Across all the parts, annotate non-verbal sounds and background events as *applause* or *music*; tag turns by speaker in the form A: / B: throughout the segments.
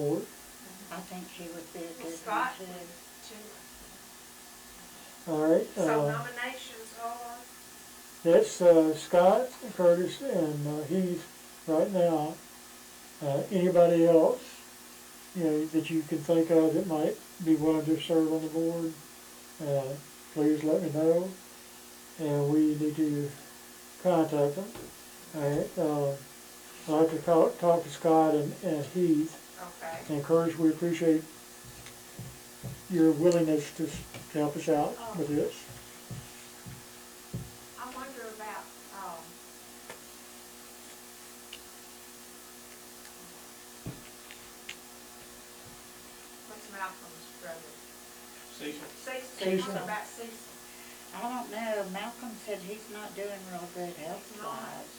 A: board.
B: I think she would be a good one
C: Scott?
B: too.
C: Two.
A: All right,
C: So
A: uh,
C: nominations are,
A: that's, uh, Scott, Curtis, and uh, Heath right now. Uh, anybody else, you know, that you can think of that might be willing to serve on the board, uh, please let me know. And we need to contact them. All right, uh, I'd like to talk, talk to Scott and, and Heath
C: okay.
A: And Courage, we appreciate your willingness to, s- to help us out with this.
C: I wonder about, um, what's Malcolm's brother?
D: Cecil,
C: Cecil,
A: Cecil.
C: what about Cecil?
B: I don't know, Malcolm said he's not doing real good health wise.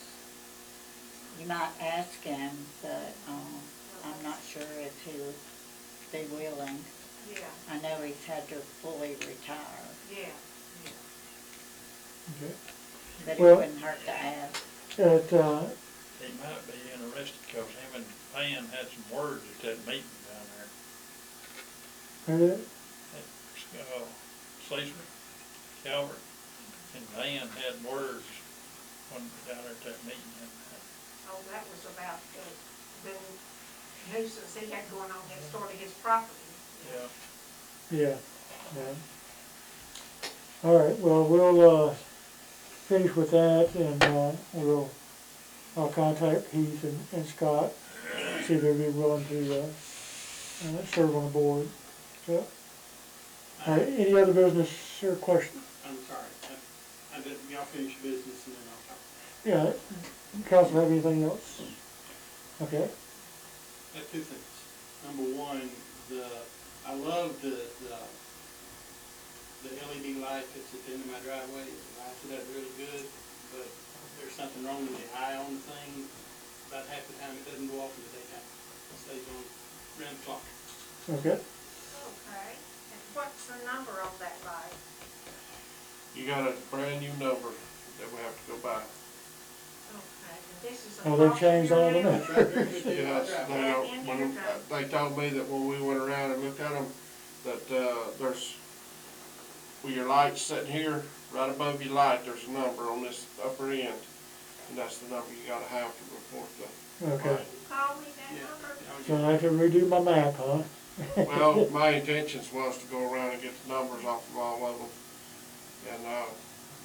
B: You might ask him, but, um, I'm not sure if he would be willing.
C: Yeah,
B: I know he's had to fully retire,
C: yeah, yeah.
A: Okay.
B: but it
A: Well-
B: wouldn't hurt to ask.
A: But, uh,
D: he might be interested, cause him and Pam had some words at that meeting down there.
A: who-
D: That, uh, Cecil, Calvert, and Van had words when, down there at that meeting.
C: Oh, that was about the, the nuisance he had going on next door to his property.
D: Yeah,
A: yeah, yeah. All right, well, we'll, uh, finish with that and, uh, we'll, I'll contact Heath and, and Scott, see if they'd be willing to, uh, uh, serve on the board. So, all right, any other business or question?
E: I'm sorry, I, I did, y'all finish your business and then I'll talk.
A: Yeah, council have anything else? Okay.
E: I have two things. Number one, the, I love the, the, the LED light that's at the end of my driveway, it lights it up really good, but there's something wrong with the eye on the thing. About half the time it doesn't go off in the daytime, it stays on around the clock.
A: Okay.
C: Okay, and what's the number on that light?
F: You got a brand new number that we have to go by.
C: Okay, and this is a.
A: Oh, they've changed all
C: *laughs*
A: of them.
C: multi-year
E: It's right there at the end of my
F: Yes,
E: driveway.
F: they don't, when, they told me that when we went around and looked at them, that, uh, there's, with your lights sitting here, right above your light, there's a number on this upper end. And that's the number you gotta have to report the.
A: *laughs* Okay,
C: Call me that
E: Yeah.
C: number?
E: I was-
A: so I can redo my map, huh? *laughs*
F: Well, my intentions was to go around and get the numbers off of all of them. And, uh,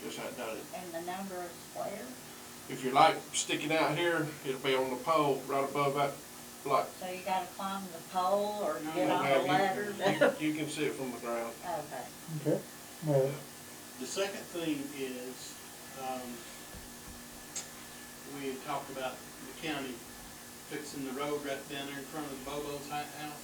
F: just hadn't done it.
B: And the number is where?
F: If your light sticking out here, it'll be on the pole right above that light.
B: So you gotta climb the pole or
E: No,
B: get
E: no,
B: on
F: Now,
B: the
F: you-
B: ladder? *laughs*
F: You you can see it from the ground.
B: Okay.
A: Okay, well,
E: The second thing is, um, we had talked about the county fixing the road right down there in front of the Bobo's hi- house.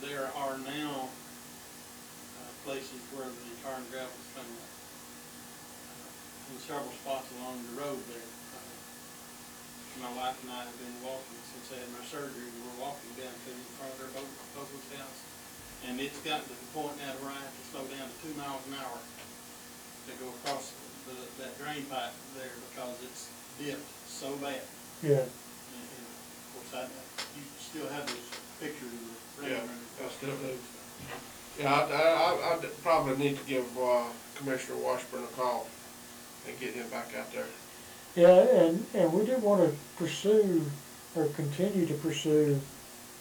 E: There are now, uh, places where the tar and gravel's coming up. uh, In several spots along the road there. Uh, My wife and I have been walking since I had my surgery, and we're walking down to in front of their Bo- Bobo's house. And it's gotten to the point now where I have to slow down to two miles an hour to go across the, that drain pipe there because it's dipped so bad.
A: yeah,
E: And, and of course, I, you still have this picture of the rain
F: Yeah,
E: running across
F: that's
E: the
F: definitely-
E: road.
F: Yeah, I, I, I I'd probably need to give uh, Commissioner Washburn a call and get him back out there.
A: yeah, and, and we did wanna pursue, or continue to pursue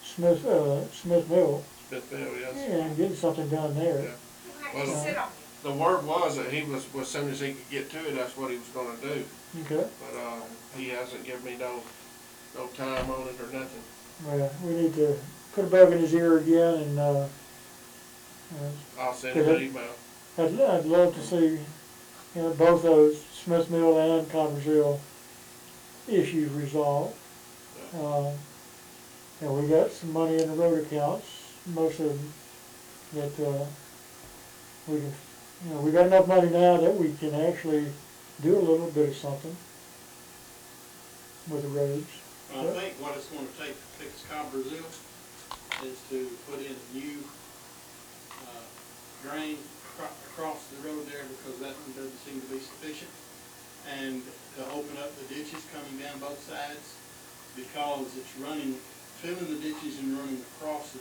A: Smith, uh, Smithville,
F: Smithville, uh, yes.
A: and getting something done there.
C: You have to
F: Well,
C: sit on
F: The word was that he was, was soon as he could get to it, that's what he was gonna do.
A: Okay,
F: But, uh, he hasn't given me no, no time on it or nothing.
A: well, we need to put a bug in his ear again, and, uh, uh,
F: I'll send him an email.
A: I'd, I'd love to see, you know, both those, Smith Mill and Cottersville issues resolved. Uh, and we got some money in the road accounts, most of them, that, uh, we can, you know, we got enough money now that we can actually do a little bit of something with the roads.
E: Well, I think what it's gonna take to fix Cobb Brazil is to put in new, uh, drain acro- across the road there because that one doesn't seem to be sufficient. And to open up the ditches coming down both sides because it's running filling the ditches and running across the